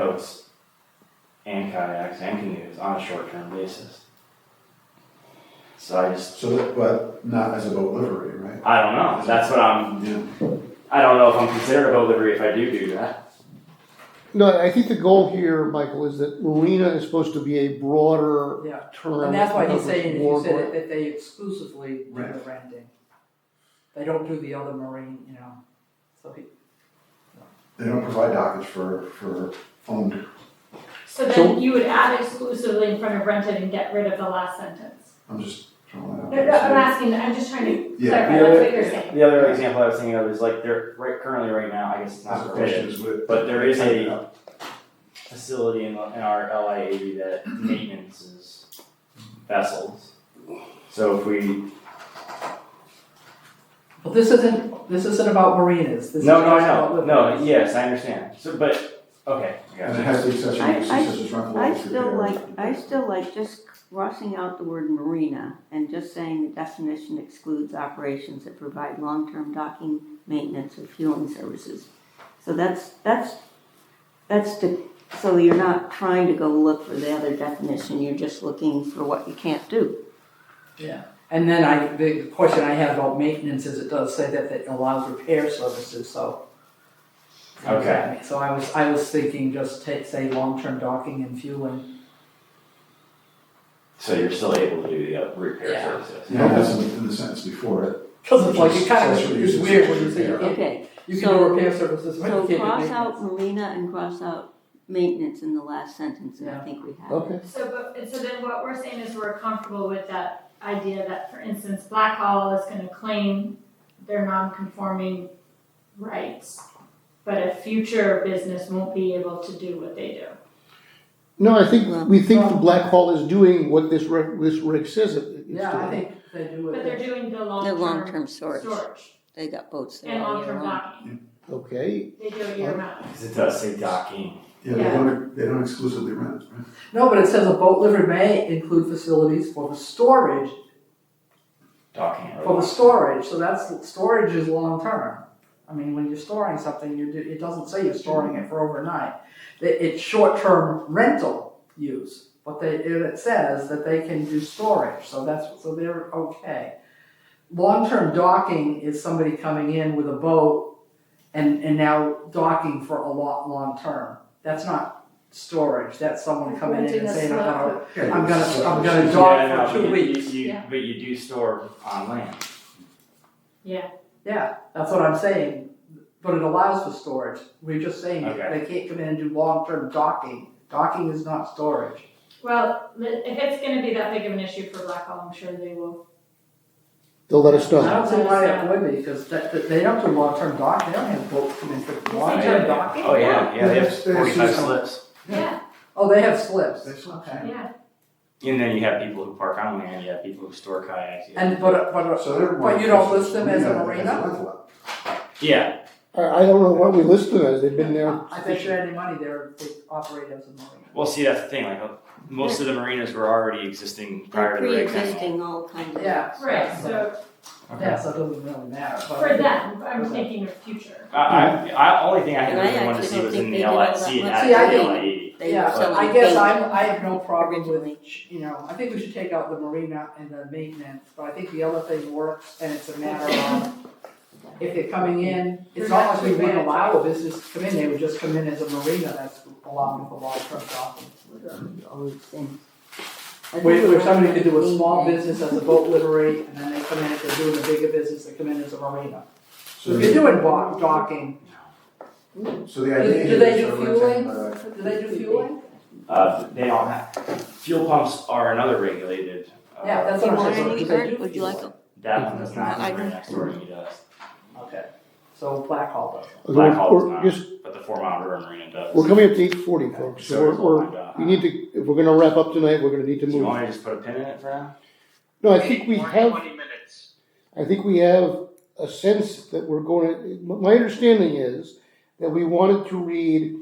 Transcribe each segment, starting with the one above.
boats and kayaks and canoes on a short-term basis. So I just, So that, but not as a boat livery, right? I don't know, that's what I'm, Yeah. I don't know if I'm considered a boat livery if I do do that. No, I think the goal here, Michael, is that marina is supposed to be a broader Yeah, term. and that's why he's that saying, if you covers said more- it, that they exclusively do the Rent. renting. They don't do the other marine, you know, so he, They don't provide dockage for, for owned, So then you would add exclusively in front of rented and get rid of the last sentence. I'm just throwing No, that no, I'm out. asking, I'm just trying to Yeah. clarify, that's what you're saying. The other example I was thinking of is like, there, right, currently right now, I guess it's That's not the permitted, question is with. but there is a facility in, in our LIAV that maintenances vessels. So if we, well, this isn't, this isn't about marinas, this is just no, no, about no, living. no, yes, I understand, so, but, okay, I got And you. it has the accessory I- uses I- such as rental. I office still repairs. like, I still like just crossing out the word marina and just saying the definition excludes operations that provide long-term docking, maintenance, or fueling services. So that's, that's, that's to, so you're not trying to go look for the other definition, you're just looking for what you can't do. And then I, the question I have about maintenance is it does say that it allows repair services, so. Okay. So I was, I was thinking just take, say, long-term docking and fueling. So you're still able to do the uh, repair Yeah. services. You don't have something in the sentence before it. Cause it's like, it kind of, Accessory it's uses weird such when you as say you repair. can't, Okay, you can So- do repair services, but you so can't do cross maintenance. out marina and cross out maintenance in the last sentence, and I Yeah. think we have. it. Okay, So, but, and so then what we're saying is we're comfortable with that idea that, for instance, Blackhall is gonna claim their non-conforming rights, but a future business won't be able to do what they do. no, I think, we think the Black Hall is doing what this reg, this reg says it, it's doing. Yeah, I think they do But they're it, doing the The long-term long-term storage, storage they got boats there and all year long-term long. docking. Okay, They do it year round. Because it does say docking. Yeah, they Yeah. don't, they don't exclusively rent, right? no, but it says a boat livery may include facilities for the storage, Docking. for the storage, so that's, storage is long-term. I mean, when you're storing something, you do, it doesn't say you're storing it for overnight, It- it's short-term rental use. But they, it says that they can do storage, so that's, so they're okay. Long-term docking is somebody coming in with a boat and, and now docking for a lot, long-term. That's not storage, that's someone coming in and saying, I'm gonna I'm gonna- I'm gonna Yeah. dock Yeah, for no, two but you- you- weeks. you- Yeah. But you do store on land. Yeah, that's what I'm saying, but it allows for storage, we're just saying that Okay. they can't come in and do long-term docking, docking is not storage. Well, li- if it's gonna be that big of an issue for Blackhall, I'm sure they will. they'll let us I know. don't see why it would be, because that, that- they don't do long-term dock, they don't have boats come in for long-term yeah. docking. Oh, yeah, yeah, they have Yes, they have forty-five seasonal. slips. Yeah, Oh, they have slips, They sell. okay. yeah. And then you have people who park on land, you have people who store kayaks. you have- And, but, but, So they're. But you don't list them as a Yeah, marina? rental. Yeah, I, I don't know why we list them as, they've been there. I bet you any money they're, they operate as a marina. well, see, that's the thing, like, uh, most of the marinas were already existing They're prior to the reg pre-existing all kinds of. Yeah. Right, so Yeah, so it doesn't really matter, but. for them, I'm thinking of future. I, I, I, only thing I And had I really wanted to actually see don't was think in they the did all that LIC, much. not See, I the didn't- LIE. They Yeah, were selling I guess bait I'm, I have no problem originally. with, you know, I think we should take out the marina and the maintenance, but I think the other thing works, and it's a matter of if they're coming in, it's not like we wouldn't allow a business to come in, they would just come in as a marina, that's allowing for large truck docking. Where, where somebody could do a small business as a boat livery, and then they come in, if they're doing a bigger business, they come in as a marina. So So if you're the, doing bo- docking, so the do idea. do they is do they're fueling? renting, but- Do they do fueling? Uh, they don't have, fuel pumps are another regulated. uh, Yeah, that's what I'm saying. Warren, Do you they heard? do Would you like fueling? That one does not, I- the next door to me does. Okay, so Black Hall does. Black Hall We're- is not. just- But the Four Mile River Marina does. We're coming up to eight forty, folks, so we're, we're, we need to, if we're gonna wrap up tonight, we're gonna need to Do you move. want me to just put a pin in it for now? No, I think we More than have, Twenty minutes. I think we have a sense that we're going to, my understanding is that we wanted to read,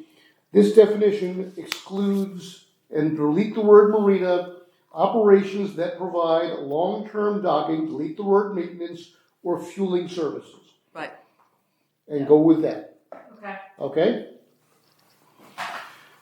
this definition excludes and delete the word marina, operations that provide long-term docking, delete the word maintenance or fueling services. Right. And go with that, Okay, okay?